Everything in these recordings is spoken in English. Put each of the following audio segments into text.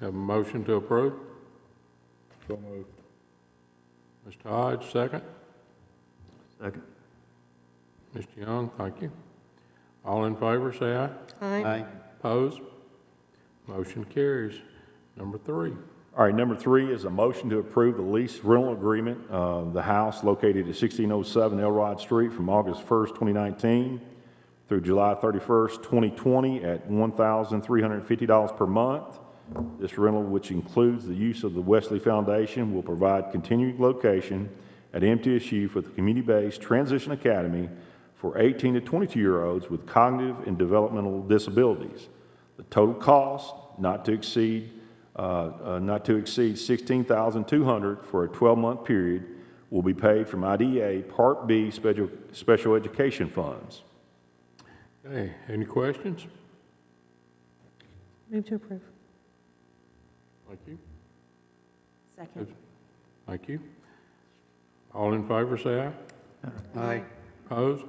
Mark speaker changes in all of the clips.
Speaker 1: Have a motion to approve?
Speaker 2: So moved.
Speaker 1: Mr. Hodge, second.
Speaker 3: Second.
Speaker 1: Mr. Young, thank you. All in favor, say aye.
Speaker 4: Aye.
Speaker 3: Aye.
Speaker 1: Opposed? Motion carries. Number three,
Speaker 2: All right, number three is a motion to approve the lease rental agreement of the house located at 1607 Elrod Street from August 1st, 2019 through July 31st, 2020 at $1,350 per month. This rental, which includes the use of the Wesley Foundation, will provide continued location at MTSU for the community-based transition academy for 18 to 22-year-olds with cognitive and developmental disabilities. The total cost not to exceed, uh, uh, not to exceed 16200 for a 12-month period will be paid from IDA Part B special, special education funds.
Speaker 1: okay, any questions?
Speaker 4: Move to approve.
Speaker 1: Thank you.
Speaker 4: Second.
Speaker 1: Thank you. All in favor, say aye.
Speaker 3: Aye.
Speaker 1: Opposed?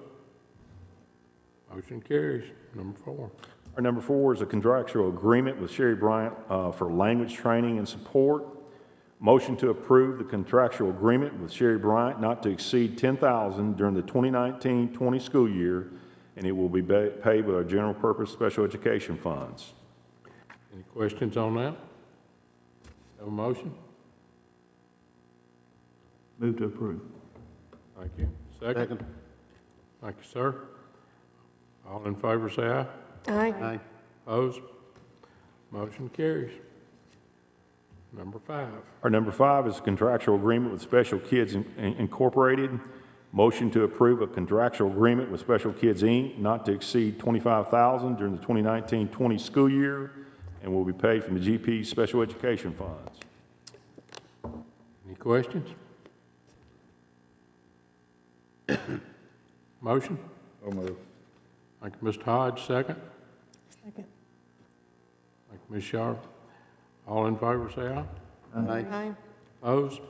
Speaker 1: Motion carries. Number four,
Speaker 2: Our number four is a contractual agreement with Sherry Bryant uh, for language training and support. Motion to approve the contractual agreement with Sherry Bryant not to exceed $10,000 during the 2019-20 school year, and it will be ba- paid with our general purpose special education funds.
Speaker 1: any questions on that? Have a motion?
Speaker 3: Move to approve.
Speaker 1: Thank you. Second? Thank you, sir. All in favor, say aye.
Speaker 4: Aye.
Speaker 3: Aye.
Speaker 1: Opposed? Motion carries. Number five,
Speaker 2: Our number five is a contractual agreement with Special Kids In- Incorporated. Motion to approve a contractual agreement with Special Kids, Inc., not to exceed $25,000 during the 2019-20 school year, and will be paid from the GP Special Education Funds.
Speaker 1: any questions? Motion?
Speaker 2: So moved.
Speaker 1: Thank you, Mr. Hodge, second.
Speaker 4: Second.
Speaker 1: Thank you, Ms. Sharp. All in favor, say aye.
Speaker 3: Aye.
Speaker 4: Aye.
Speaker 1: Opposed?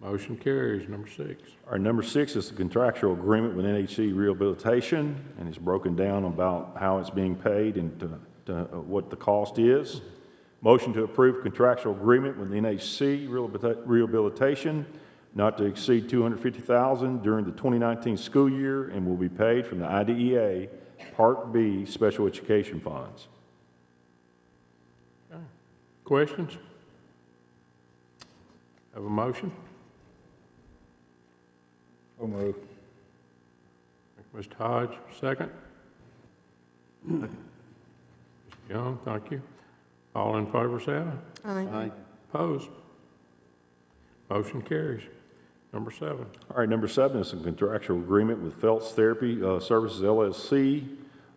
Speaker 1: Motion carries. Number six.
Speaker 2: Our number six is the contractual agreement with NHC Rehabilitation, and it's broken down about how it's being paid and to, to uh, what the cost is. Motion to approve contractual agreement with NHC Rehabilita- Rehabilitation not to exceed two hundred fifty thousand during the twenty nineteen school year and will be paid from the IDEA Part B Special Education Funds.
Speaker 1: Questions? Have a motion?
Speaker 2: So moved.
Speaker 1: Thank you, Mr. Hodge, second. Mr. Young, thank you. All in favor, say aye.
Speaker 4: Aye.
Speaker 3: Aye.
Speaker 1: Opposed? Motion carries. Number seven.
Speaker 2: All right, number seven is a contractual agreement with Phelps Therapy uh, Services LLC.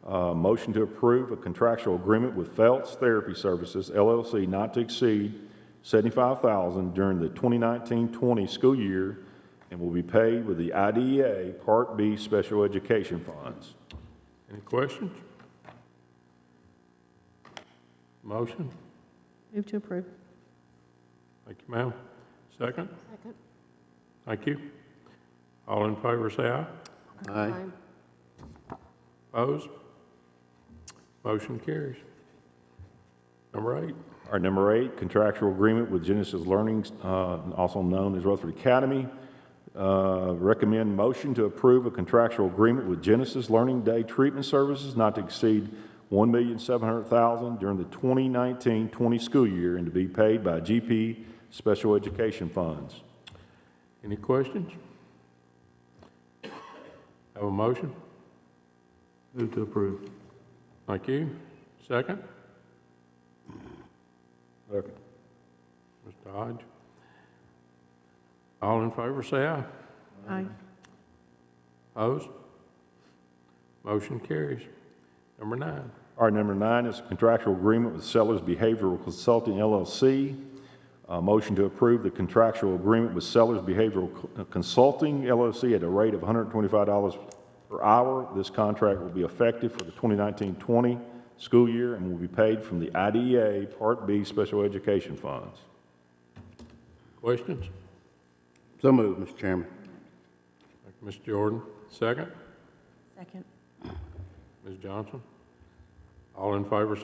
Speaker 2: Uh, Motion to approve a contractual agreement with Phelps Therapy Services LLC not to exceed $75,000 during the 2019-20 school year and will be paid with the IDEA Part B Special Education Funds.
Speaker 1: Any questions? Motion?
Speaker 4: Move to approve.
Speaker 1: Thank you, ma'am. Second?
Speaker 4: Second.
Speaker 1: Thank you. All in favor, say aye.
Speaker 3: Aye.
Speaker 1: Opposed? Motion carries. Number eight,
Speaker 2: Our number eight, contractual agreement with Genesis Learning, uh, also known as Rutherford Academy. Uh, Recommend motion to approve a contractual agreement with Genesis Learning Day Treatment Services not to exceed $1,700,000 during the 2019-20 school year and to be paid by GP Special Education Funds.
Speaker 1: any questions? Have a motion?
Speaker 3: Move to approve.
Speaker 1: Thank you. Second?
Speaker 2: Second.
Speaker 1: Mr. Hodge? All in favor, say aye.
Speaker 4: Aye.
Speaker 1: Opposed? Motion carries. Number nine,
Speaker 2: All right, number nine is contractual agreement with Sellers Behavioral Consulting LLC. A Uh, motion to approve the contractual agreement with Sellers Behavioral uh, Consulting LLC at a rate of $125 per hour. This contract will be effective for the 2019-20 school year and will be paid from the IDEA Part B Special Education Funds.
Speaker 1: questions?
Speaker 3: So moved, Mr. Chairman.
Speaker 1: Thank you, Ms. Jordan, second.
Speaker 4: Second.
Speaker 1: Ms. Johnson? All in favor,